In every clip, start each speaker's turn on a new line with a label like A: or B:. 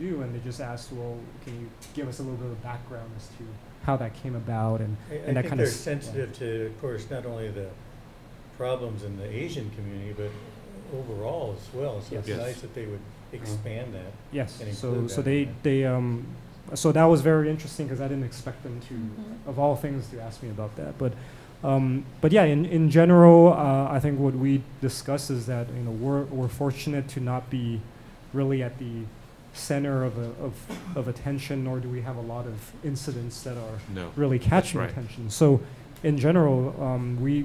A: do, and they just asked, well, can you give us a little bit of background as to how that came about and
B: I-
A: and
B: I
A: that
B: think
A: kinda
B: they're
A: s-
B: sensitive to, of course, not only the problems in the Asian community, but overall as well. So it's
A: Yes.
B: nice that they would expand that.
A: yes,
B: and
A: so
B: include
A: so
B: that
A: they
B: in it.
A: they um, so that was very interesting because I didn't expect them to
B: Mm-hmm.
C: Mhm.
A: of all things to ask me about that, but. Um, but yeah, in, in general, uh, I think what we discuss is that you know we're, we're fortunate to not be really at the center of, a, of, of attention, nor do we have a lot of incidents that are
D: No.
A: really catching
D: right.
A: attention. So, in general, um, we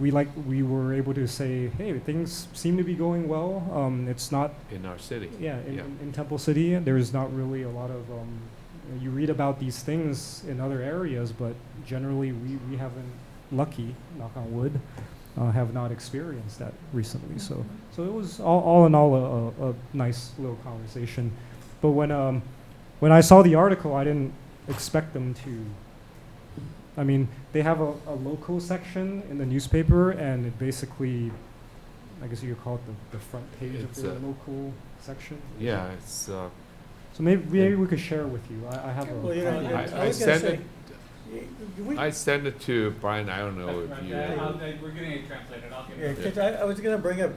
A: we like we were able to say, hey, things seem to be going well. Um, it's not
D: In our city.
A: yeah in,
D: Yeah.
A: in, in Temple City there is not really a lot of um, you read about these things in other areas, but generally we we haven't lucky knock on wood uh, have not experienced that recently. So. So it was all, all in all a, a, a nice little conversation. But when um, when I saw the article, I didn't expect them to. I mean, they have a, a local section in the newspaper, and it basically, I guess you could call it the, the front page
D: It's
A: of their
D: a-
A: local section.
D: Yeah, it's, uh,
A: So maybe maybe we could share with you. I, I have a.
B: Well, you know,
C: I-
B: I
D: I
B: was gonna
D: sent
B: say.
D: it,
B: y- we-
D: I sent it to Brian, I don't know if you.
B: Yeah.
E: I'll- I- We're getting it translated, I'll give
B: Yeah,
E: it.
B: 'cause I, I was gonna bring up,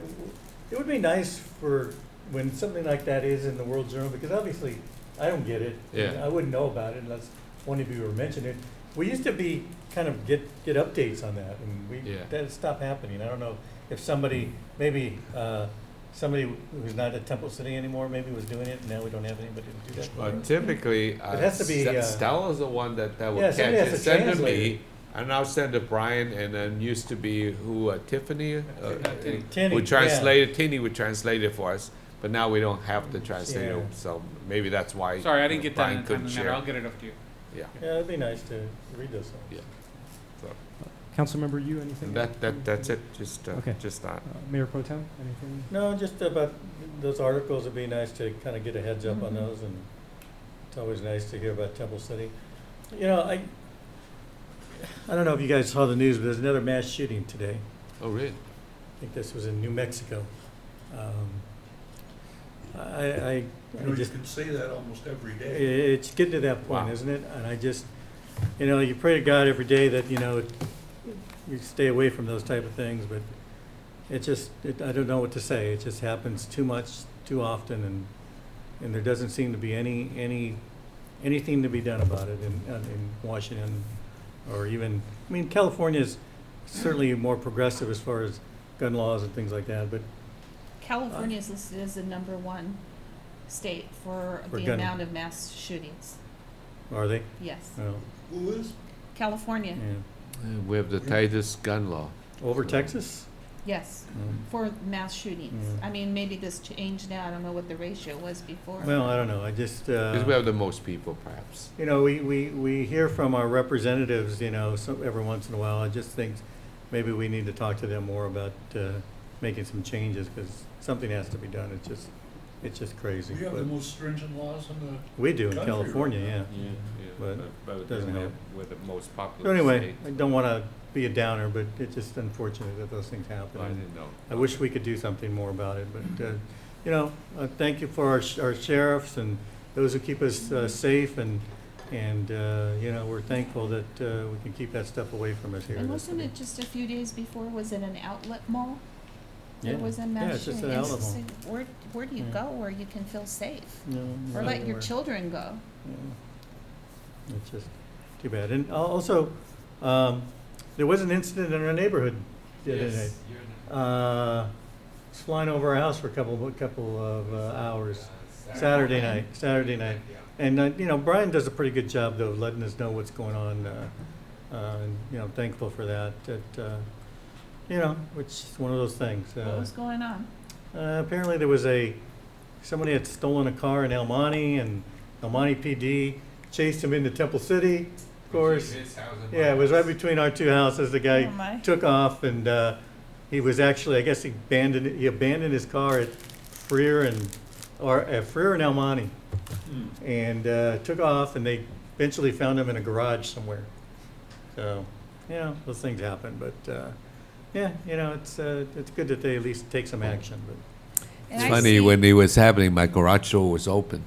B: it would be nice for, when something like that is in the World Journal, because obviously, I don't get it. and
D: Yeah.
B: I wouldn't know about it unless one of you were mentioning it. We used to be, kind of get, get updates on that, and we,
D: Yeah.
B: that stopped happening. I don't know if somebody, maybe, uh, somebody who's not at Temple City anymore, maybe was doing it, and now we don't have anybody to do that.
D: Uh,
B: for.
D: typically, uh,
B: It has to be,
D: Ste-
B: uh,
D: Stella's the one that, that will
B: Yeah,
D: catch
B: somebody
D: it,
B: has to
D: send to
B: translate
D: me, and I'll send to Brian, and then used to be who, uh, Tiffany? uh,
B: Uh,
D: uh,
E: Tinny.
B: Tinny,
D: Would
B: yeah.
D: translate it, Tinny would translate it for us, but now we don't have the translator,
B: Yeah.
D: so maybe that's why.
E: Sorry, I didn't
D: uh,
E: get that
D: Brian
E: in a
D: couldn't
E: timely
D: share.
E: manner, I'll get it up to you.
D: Yeah,
B: Yeah, it'd be nice to read those things.
D: Yeah.
A: Councilmember, you anything?
D: that, that, that's it, just, uh,
A: Okay.
D: just that.
A: Uh, Mayor Pro Tem, anything?
B: No, just about those articles, it'd be nice to kind of get a heads up on
C: Mhm.
B: those, and it's always nice to hear about Temple City. You know, I, I don't know if you guys saw the news, but there's another mass shooting today.
D: Oh, really?
B: I think this was in New Mexico. Um, I, I,
F: You
B: I
F: know, you
B: just
F: can say that almost every
B: i-
F: day.
B: It's getting to that point,
D: Wow.
B: isn't it? And I just, you know, you pray to God every day that, you know, you stay away from those type of things, but it just, it, I don't know what to say. It just happens too much, too often, and, and there doesn't seem to be any, any, anything to be done about it in, uh, in Washington or even, I mean, California's certainly more progressive as far as gun laws and things like that, but
C: California is listed as the number one state for
B: For
C: the
B: gun-
C: amount of mass shootings.
B: are they?
C: Yes,
B: Well,
F: Who is?
B: yeah.
C: California,
D: Uh, We have the tightest gun law.
B: Over Texas?
C: yes,
B: Mm.
C: for mass shootings.
B: Mm.
C: I mean, maybe this changed now, I don't know what the ratio was before.
B: Well, I don't know. I just, uh.
D: Because we have the most people, perhaps.
B: You know, we, we, we hear from our representatives, you know, so, every once in a while, I just think maybe we need to talk to them more about, uh, making some changes, because something has to be done, it's just, it's just crazy.
F: We have
B: but
F: the most stringent laws in the,
B: We do in
F: country right
B: California,
F: now.
B: yeah.
D: Yeah, yeah,
B: But
D: but
B: doesn't
D: we're-
B: help.
D: We're the most
B: So
D: popular
B: anyway,
D: state.
B: I don't wanna be a downer, but it's just unfortunate that those things
D: I
B: happen.
D: didn't know.
B: I wish we could do something more about it, but, uh, you know, uh, thank you for our, sh- our sheriffs and those who keep us, uh, safe and, and, uh, you know, we're thankful that, uh, we can keep that stuff away from us here.
C: And
B: That's
C: wasn't
B: the-
C: it just a few days before, was it an outlet mall?
B: Yeah.
C: There was a
B: Yeah,
C: mass
B: it's just
C: shooting.
B: an
C: It's
B: outlet
C: just
B: mall.
C: like, Where, where do you
B: Yeah.
C: go where you can feel safe?
B: No,
C: Or
B: not
C: let your
B: anywhere.
C: children go?
B: Yeah. It's just too bad. And al- also, um, there was an incident in our neighborhood the other day. Uh, was flying over our house for a couple, a couple of uh, hours, Saturday night, Saturday night. And, uh, you know, Brian does a pretty good job though, of letting us know what's going on, uh, uh, and, you know, thankful for that, that, uh, you know, which is one of those things.
C: What
B: uh,
C: was going on?
B: Uh, apparently there was a, somebody had stolen a car in El Monte and El Monte PD chased him into Temple City, of course. Yeah, it was right between our two houses. The
C: Oh,
B: guy
C: my.
B: took off and, uh, he was actually, I guess he abandoned, he abandoned his car at Freer and, or at Freer and El Monte. And, uh, took off and they eventually found him in a garage somewhere. So, you know, those things happen, but, uh, yeah, you know, it's, uh, it's good that they at least take some action, but.
C: And I
D: funny
C: see-
D: when it was happening, my garage door was open.